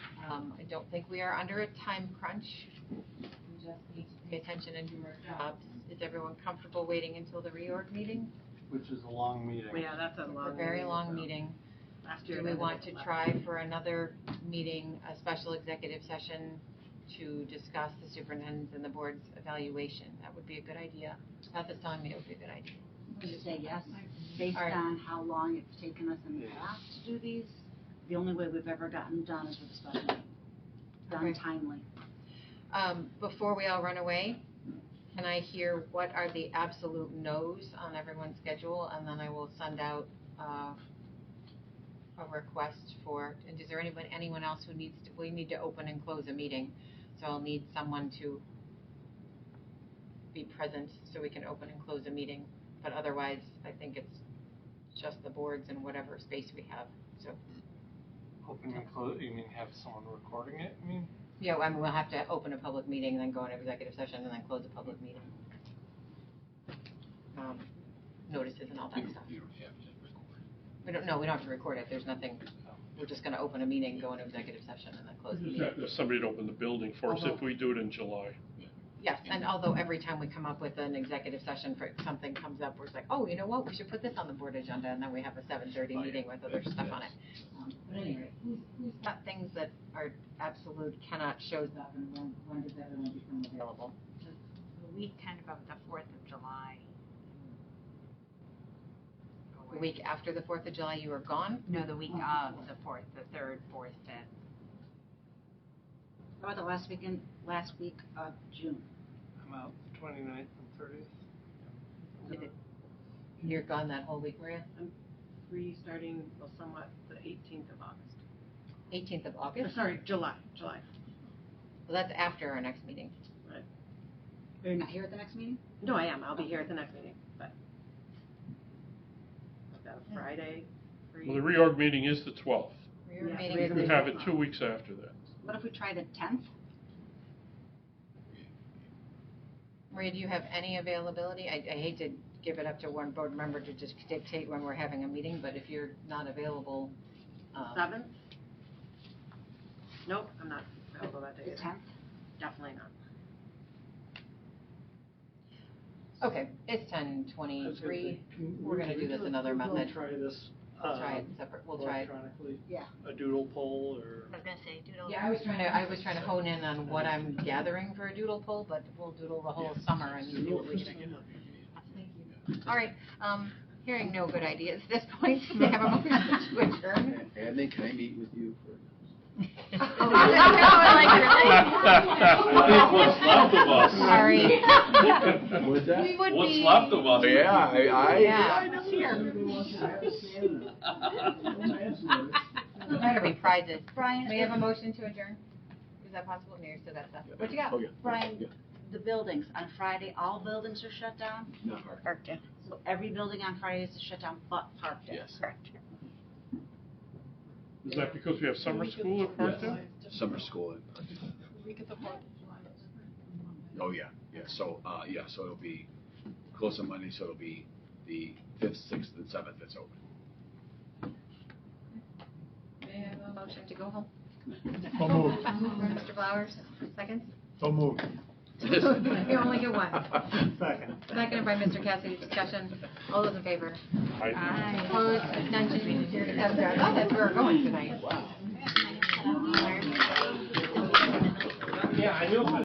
Um, I don't think we are under a time crunch. We just need to pay attention and do our jobs. Is everyone comfortable waiting until the reorg meeting? which is a long meeting. Yeah, that's a It's long. a very long so meeting. Last year. Do we want to try for another meeting, a special executive session to discuss the superintendent's and the board's evaluation? That would be a good idea. Beth is telling me it would be a good idea. would say yes, based All right. on how long it's taken us in the Yeah. past to do these. The only way we've ever gotten done is with a special meeting, done Okay. timely. Um, before we all run away, can I hear what are the absolute no's on everyone's schedule? And then I will send out, uh, a request for, and is there anyone, anyone else who needs to, we need to open and close a meeting. So I'll need someone to be present so we can open and close a meeting. But otherwise, I think it's just the boards and whatever space we have. Open and close, you mean have someone recording it, I mean? Yeah, I mean, we'll have to open a public meeting, then go into executive session, and then close a public meeting. Um, Notices and all that stuff. You don't have to record. We don't, no, we don't have to record it, there's nothing, we're just gonna open a meeting, go into executive session, and then close the Just meeting. have to have somebody to open the building for us if Although- we do it in July. Yes, and although every time we come up with an executive session for, something comes up, we're just like, oh, you know what, we should put this on the board agenda, and then we have a seven thirty Oh, yeah. meeting with other stuff on it. Um, But anyway, who's, who's not things that are absolute cannot shows up, and when, when does everyone become available? The weekend of the Fourth of July. The week after the Fourth of July, you were gone? No, the week of the fourth, the third, fourth, fifth. How about the last weekend, last week of June? I'm out the twenty-ninth and thirtieth. You're gone that whole week, were you? Three starting, well, somewhat, the eighteenth of August. Eighteenth of Or August? Uh, Sorry, July, July. Well, that's after our next meeting. You're not here at the next meeting? No, I am, I'll be here at the next meeting, but. I've got a Oh, Friday, Well, the free. reorg meeting is the 12th. Your Yeah, meeting we is We agree. the- have it two weeks after that. What if we try the tenth? Maria, do you have any availability? I, I hate to give it up to one board member to just dictate when we're having a meeting, but if you're not available, um, Seventh? Nope, I'm not available that The day, tenth? definitely not. okay, it's ten twenty-three. We're gonna do this another method. Try this, We'll try it um, separate, Uh, we'll try it. electronically. Yeah. A doodle poll or. I was gonna say, doodle. Yeah, I was trying to, I was trying to hone in on what I'm gathering for a doodle poll, but we'll doodle the whole summer and you do what we can. All right, um, hearing no good ideas at this point, they have a motion to adjourn. Adley, can I meet with you for? Oh, what's left of us. Sorry. What's We would be. of us? Yeah, I, I. Yeah. Better be prizes. Brian, May I have a if motion to adjourn? Is that possible? Mayor said that stuff. What you got? Oh, yeah. Brian. Yeah, the buildings on Friday, all buildings are shut down, Not hard, so every building on Friday is shut down but Parkdale. yes. Is that because we have summer school at Parkdale? Summer school. at- Oh, yeah, yeah, so, uh, yeah, so it'll be close on Monday, so it'll be the fifth, sixth, and seventh that's open. May I have a motion to go home? So moved. Mr. Flowers, seconds? So moved. You only get one. Second. Seconded by Mr. Cassidy. Discussion. All those in favor? I- Opposed? Abstentions? Here it is. I thought Oh, that's where we're going tonight. Yeah, I knew.